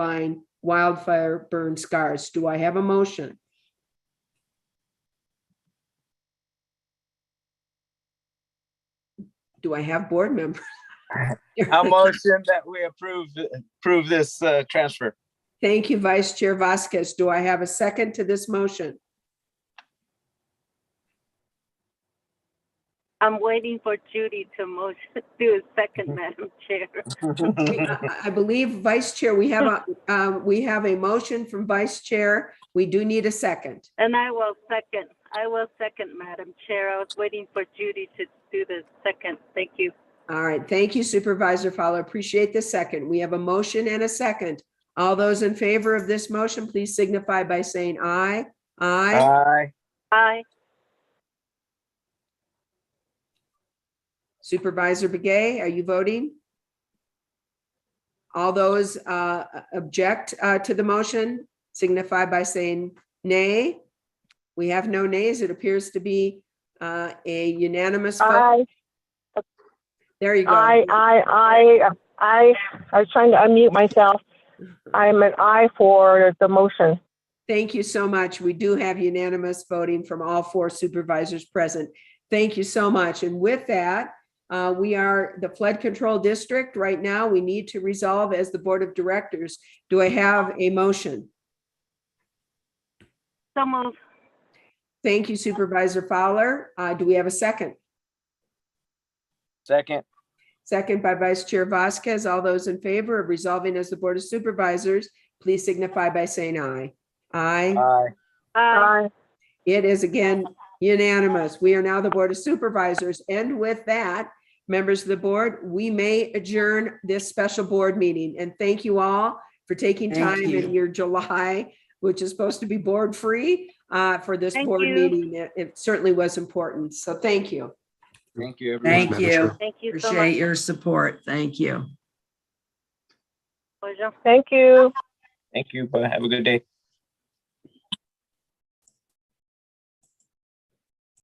line wildfire burn scars. Do I have a motion? Do I have board members? I'll motion that we approve, approve this uh, transfer. Thank you, Vice Chair Vasquez. Do I have a second to this motion? I'm waiting for Judy to motion, do a second, Madam Chair. We- uh, I I believe Vice Chair, we have a, um, we have a motion from Vice Chair. We do need a second. And I will second, I will second, Madam Chair. I was waiting for Judy to do the second. Thank you. All right, thank you Supervisor Fowler. Appreciate the second. We have a motion and a second. All those in favor of this motion, please signify by saying aye. Aye. Aye. Aye, Supervisor Begay, are you voting? All those uh, object uh, to the motion signify by saying nay. We have no nays. It appears to be uh, a unanimous vote. I, There you go. I, I, I, I, I was trying to unmute myself. I'm an I for the motion. Thank you so much. We do have unanimous voting from all four supervisors present. Thank you so much. And with that, uh, we are the flood control district. Right now, we need to resolve as the board of directors. Do I have a motion? so moved. Thank you Supervisor Fowler. Uh, Do we have a second? Second. Second by Vice Chair Vasquez. All those in favor of resolving as the Board of Supervisors, please signify by saying aye. Aye. Aye. Aye, I, It is again unanimous. We are now the Board of Supervisors. And with that, members of the board, we may adjourn this special board meeting. And thank you all for taking time in your July, which is supposed to be board-free, uh, for this Thank board you. meeting. It- It certainly was important. So thank you. Thank you, everyone. Thank you. thank you so Appreciate much. your support. Thank you. Pleasure. thank you. Thank you, but have a good day.